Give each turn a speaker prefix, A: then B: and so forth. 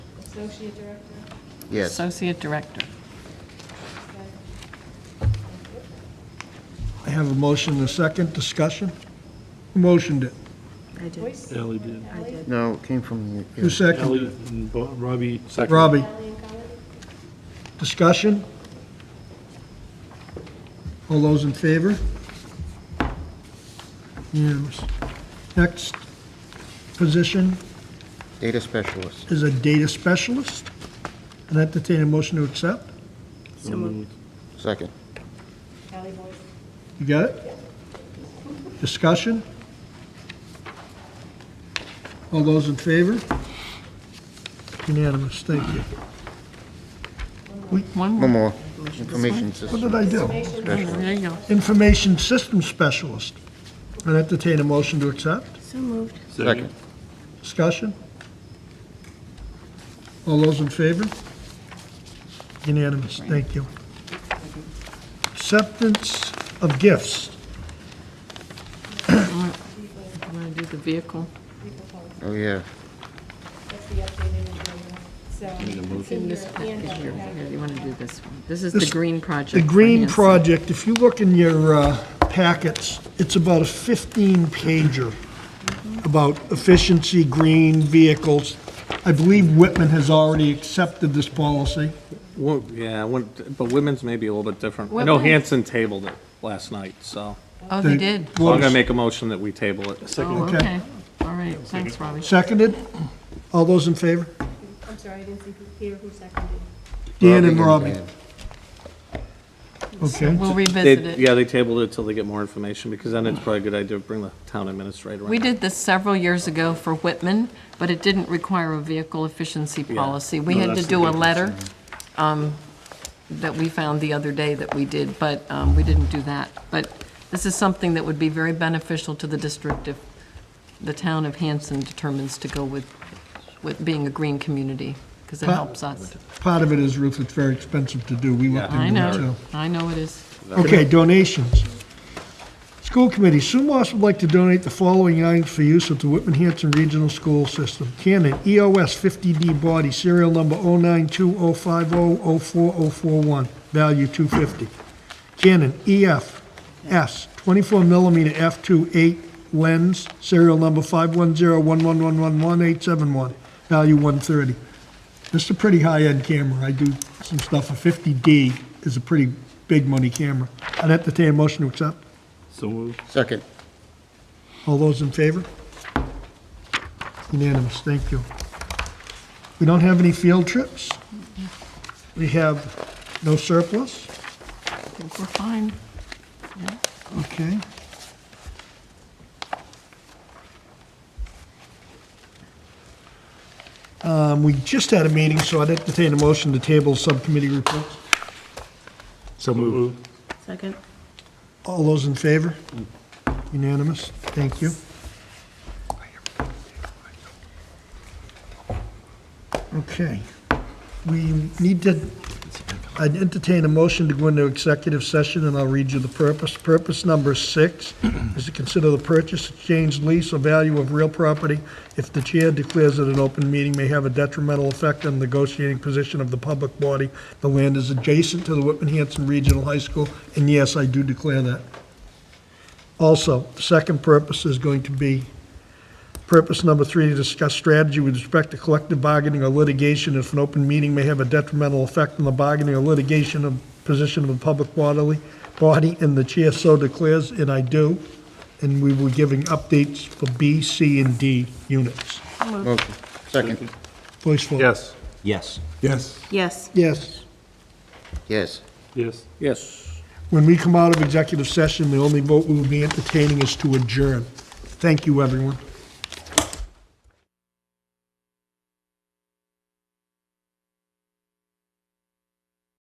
A: Associate Director.
B: Yes.
C: Associate Director.
D: I have a motion and a second, discussion. Who motioned it?
E: I did,
F: Ally did.
E: I did.
B: No, it came from,
D: Who
B: yeah.
D: seconded?
F: Ally and Bo- Robbie seconded.
D: Robbie,
A: Ally and Colleen.
D: discussion? All those in favor? Unanimous. Next position
B: data specialist.
D: is a data specialist. An entertaining motion to accept.
E: So moved.
B: Second.
A: Ally Boyd.
D: You got it? Discussion? All those in favor? Unanimous, thank you.
C: One
B: One
C: more. Oh,
B: more. Information
D: What
B: system.
D: did I do?
A: Information Director.
C: There you go.
D: Information Systems Specialist. I'd entertain a motion to accept.
E: So moved.
B: Second.
D: Discussion? All those in favor? Unanimous, thank you. Acceptance of gifts.
C: I'm going to do the vehicle.
B: Oh, yeah.
A: That's the updated agenda. So it's in
C: In
A: your
C: this package
A: handout
C: here, Here, you want to do this one. This is the
D: This-
C: green project.
D: The
C: for
D: green
C: Hanson.
D: project, if you look in your uh, packets, it's about a 15-pager
C: Mm-hmm.
D: about efficiency, green vehicles. I believe Whitman has already accepted this policy.
G: Well, yeah, one- but women's may be a little bit different. I know
C: Women-
G: Hanson tabled it last night, so
C: Oh, they did.
G: so I'm gonna make a motion that we table it.
C: Oh,
D: Okay.
C: okay. All right, thanks, Robbie.
D: Seconded? All those in favor?
A: I'm sorry, I didn't see who here who seconded.
D: Dan and
B: Robbie
D: Robbie. Okay.
C: We'll
G: They-
C: revisit it.
G: Yeah, they tabled it till they get more information, because then it's probably a good idea to bring the town administrator
C: We
G: in.
C: did this several years ago for Whitman, but it didn't require a vehicle efficiency policy. We
G: No,
C: had to
G: that's the
C: do a
G: big
C: letter um, that we found the other day that we did, but um, we didn't do that. But this is something that would be very beneficial to the district if the town of Hanson determines to go with, with being a green community, because it
D: Pa-
C: helps us.
D: Part of it is, Ruth, it's very expensive to do. We looked
C: I
D: into it,
C: know,
D: too.
C: I know it is.
D: Okay, donations. School committee, Sue Moss would like to donate the following items for use at the Whitman Hanson Regional School System. E Canon EOS 50D body, serial number 09205004041, value 250. Canon EF E S 24 mm f2.8 lens, serial number 51011111871, value 130. This is a pretty high-end camera. I do some stuff. A 50D is a pretty big money camera. I'd entertain a motion to accept.
F: So moved.
B: Second.
D: All those in favor? Unanimous, thank you. We don't have any field trips. We have no surplus.
C: I think we're fine.
D: Okay. Um, We just had a meeting, so I'd entertain a motion to table subcommittee reports.
F: So moved.
E: Second.
D: All those in favor? Unanimous, thank you. Okay, we need to, I'd entertain a motion to go into executive session, and I'll read you the purpose. Purpose number six is to consider the purchase, exchange, lease, or value of real property if the chair declares that an open meeting may have a detrimental effect on the negotiating position of the public body. The land is adjacent to the Whitman-Hanson Regional High School, and yes, I do declare that. Also, the second purpose is going to be Purpose number three, to discuss strategy with respect to collective bargaining or litigation if an open meeting may have a detrimental effect on the bargaining or litigation of position of a public bodily body, and the chair so declares, and I do. And we were giving updates for B, C, and D units.
B: Motion. Second.
D: Voice vote.
F: Yes.
H: Yes.
F: Yes.
E: Yes.
D: Yes.
B: Yes.
F: Yes.
G: Yes.
D: When we come out of executive session, the only vote we will be entertaining is to adjourn. Thank you, everyone.